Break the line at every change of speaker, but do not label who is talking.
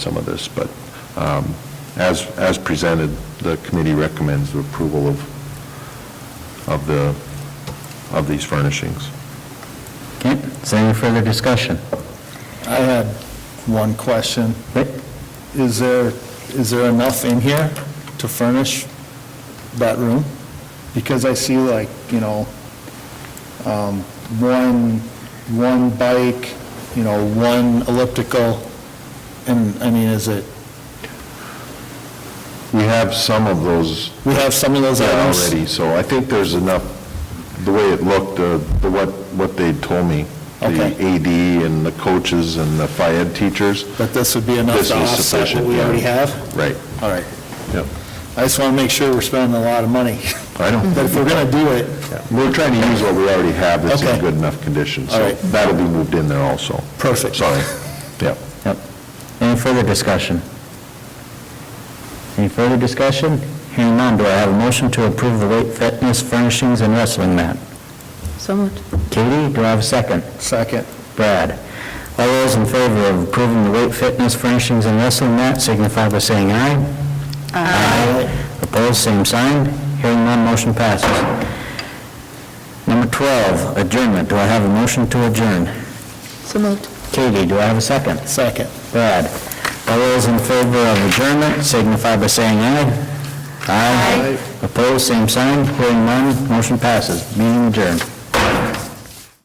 some of this, but um, as, as presented, the committee recommends the approval of, of the, of these furnishings.
Okay, is there any further discussion?
I had one question.
Rick?
Is there, is there enough in here to furnish that room? Because I see like, you know, um, one, one bike, you know, one elliptical, and, I mean, is it,
We have some of those
we have some of those items?
already, so I think there's enough, the way it looked, uh, the what, what they told me, the
Okay.
AD and the coaches and the Phi Ed teachers,
That this would be enough
This
to
is
offset what
sufficient,
we
yeah.
already have?
right,
All right.
yep.
I just want to make sure we're spending a lot of money.
I know.
But if we're going to do it,
We're trying to use what we already have that's in
Okay.
good enough condition,
All
so
right.
that'll be moved in there also.
Perfect.
Sorry, yep.
Yep. Any further discussion? Any further discussion? Hearing none, do I have a motion to approve the weight fitness furnishings and wrestling mat?
So moved.
Katie, do I have a second?
second.
Brad? All those in favor of approving the weight fitness furnishings and wrestling mat signify by saying aye. Aye. Opposed, same sign. Hearing none, motion passes. Number 12, adjournment. Do I have a motion to adjourn?
So moved.
Katie, do I have a second?
Second.
Brad. All those in favor of adjournment signify by saying aye. Aye. Opposed, same sign. Hearing none, motion passes. Meeting adjourned.